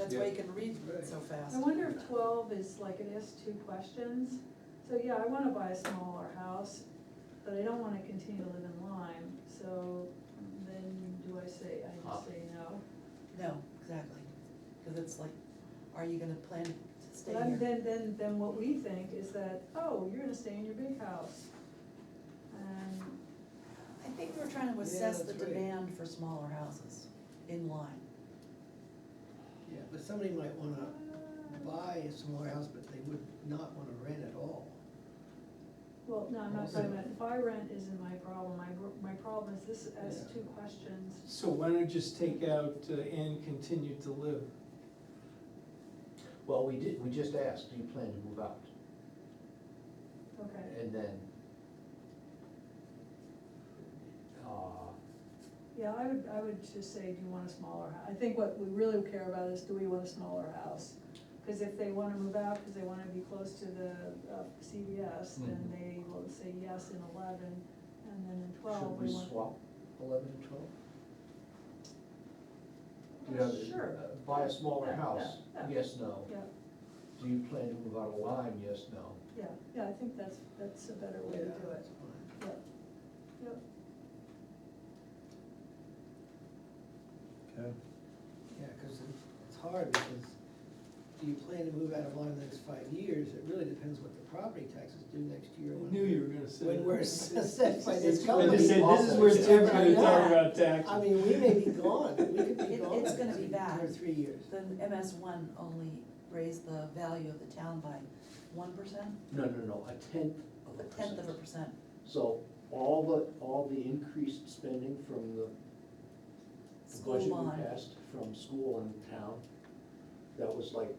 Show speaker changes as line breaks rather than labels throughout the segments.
that's why you can read it so fast.
I wonder if twelve is like an S two questions, so yeah, I wanna buy a smaller house, but I don't wanna continue to live in Lyme, so then do I say, I just say no?
No, exactly, because it's like, are you gonna plan to stay
But
here?
then, then, then what we think is that, oh, you're gonna stay in your big house. And,
I think we're trying to
Yeah,
assess the
that's right.
demand for smaller houses in line.
Yeah, but somebody might wanna
uh,
buy a smaller house, but they would not wanna rent at all.
well, no, I'm not talking about, buy rent isn't my problem, my, gr- my problem is this S
Yeah.
two questions.
So why don't you just take out uh, and continue to live?
Well, we did, we just asked, do you plan to move out?
Okay,
And then, uh,
yeah, I would, I would just say, do you want a smaller house? I think what we really care about is, do we want a smaller house? Because if they wanna move out, because they wanna be close to the uh, CVS, then
Mhm.
they will say yes in eleven, and then in twelve,
should
we
we
want. Uh,
swap eleven and twelve?
Yeah,
You know, the-
Sure,
uh, Buy a smaller
Yeah,
house,
yeah, yeah.
yes, no.
yeah,
Do you plan to move out of Lyme, yes, no.
yeah, yeah, I think that's, that's a better way to
Yeah,
do it,
that's fine.
yeah, yep.
Okay.
Yeah, cause it- it's hard because do you plan to move out of line in the next five years? It really depends what the property taxes do next year.
I
when-
knew you were gonna say that.
When we're assessed by this
I
company.
just said, this is where
It's
Tim's
gonna be
gonna talk
gone.
about taxes.
I mean, we may be gone, we could be
It-
gone.
it's gonna
in
be
two
bad.
Or three years.
The MS one only raised the value of the town by one percent,
No, no, no, a tenth of
a
a
tenth of a
percent.
percent.
So all the, all the increased spending from the the
School
budget we
bond.
passed from school and town, that was like,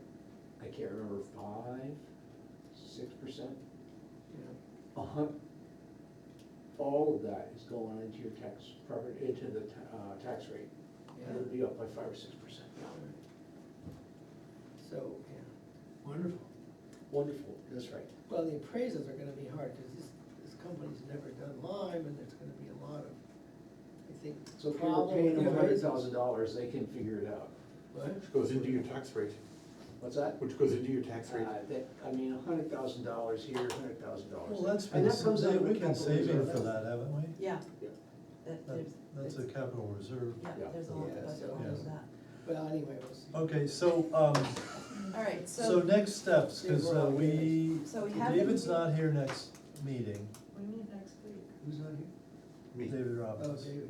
I can't remember, five, six percent?
Yeah.
A hun, all of that is going into your tax, property, into the, ta- uh, tax rate.
Yeah.
It'll be up by five or six percent.
So, yeah.
Wonderful.
Wonderful, that's right.
Well, the appraisals are gonna be hard, cause this, this company's never done Lyme, and there's gonna be a lot of, I think.
So if you're
problem
paying them
with
a hundred
appraisals.
thousand dollars, they can figure it out.
What?
Which goes into your tax rate,
What's that?
which goes into your tax rate.
Uh, that, I mean, a hundred thousand dollars here, a hundred thousand dollars.
Well, that's
And
been,
that comes out of
we've been
capital
saving
reserve.
for that, haven't we?
Yeah.
Yeah.
That
That-
there's-
That's a
it's-
capital reserve.
Yeah, there's a lot of
Yeah,
budget
so-
line of
Yeah.
that.
Well, anyway, we'll see. Oh,
Okay, so, um,
All right,
so
so
next steps, cause
Yeah, we're
uh,
all
we,
So we haven't-
David's not here next meeting,
We meet next week.
Who's not here?
David
Oh,
Robbins.
David,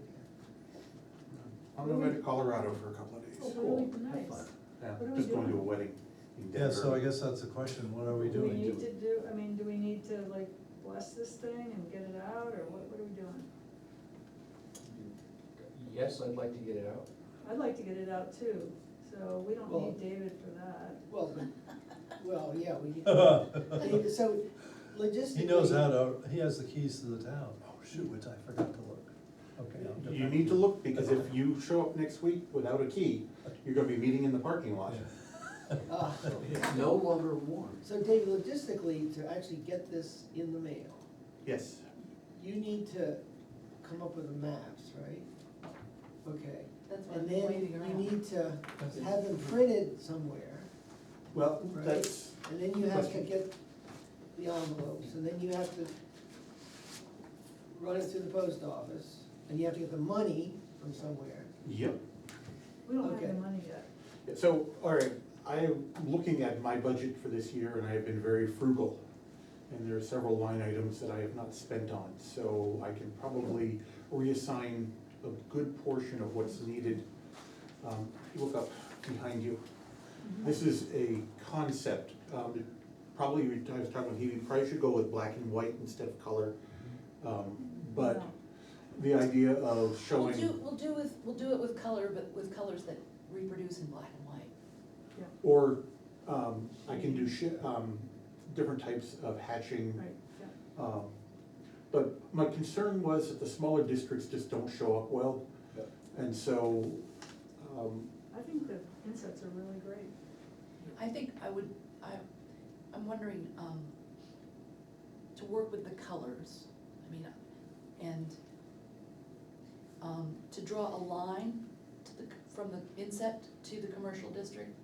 I'm going to Colorado for a couple of
Oh, really
days.
cool. Have
nice.
fun.
Yeah,
What are we
Just going to a
doing?
wedding in Denver.
Yeah, so I guess that's the question, what are we
Do we
doing?
need to do, I mean, do we need to like bless this thing and get it out, or what, what are we doing?
Yes, I'd like to get it out.
I'd like to get it out too, so we don't
Well-
need David for that.
yeah. Well, but- well, yeah, we, David, so logistically.
He knows how to, he has the keys to the town, oh shoot, which I forgot to look, okay. I'll get
You
back
need to
you.
look, because if you show up next week without a key, you're gonna be meeting in the parking lot.
Ah.
It's no longer warm.
So David, logistically, to actually get this in the mail,
Yes,
you need to come up with the maps, right? Okay,
that's what
and
I'm
then
waiting
you
around.
need to have them printed somewhere.
well,
Right.
that's,
And then you have to get the envelopes, and then you have to run it through the post office, and you have to get the money from somewhere.
yep.
We don't have
Okay.
the money yet.
So, all right, I am looking at my budget for this year and I have been very frugal. And there are several line items that I have not spent on, so I can probably reassign a good portion of what's needed. Um, Look up behind you. This is a concept, um, it probably, we- I was talking with Hebe, probably should go with black and white instead of color. Um, But
No.
the idea of
We'll
showing.
do, we'll do with, we'll do it with color, but with colors that reproduce in black and white.
Or, um, I can do shi um, different types of hatching.
Right, yeah.
Um, But my concern was that the smaller districts just don't show up well.
Yep.
And so, um,
I think the insets are really great.
I think I would, I, I'm wondering, um, to work with the colors, I mean, and, um, to draw a line to the, from the inset to the commercial district,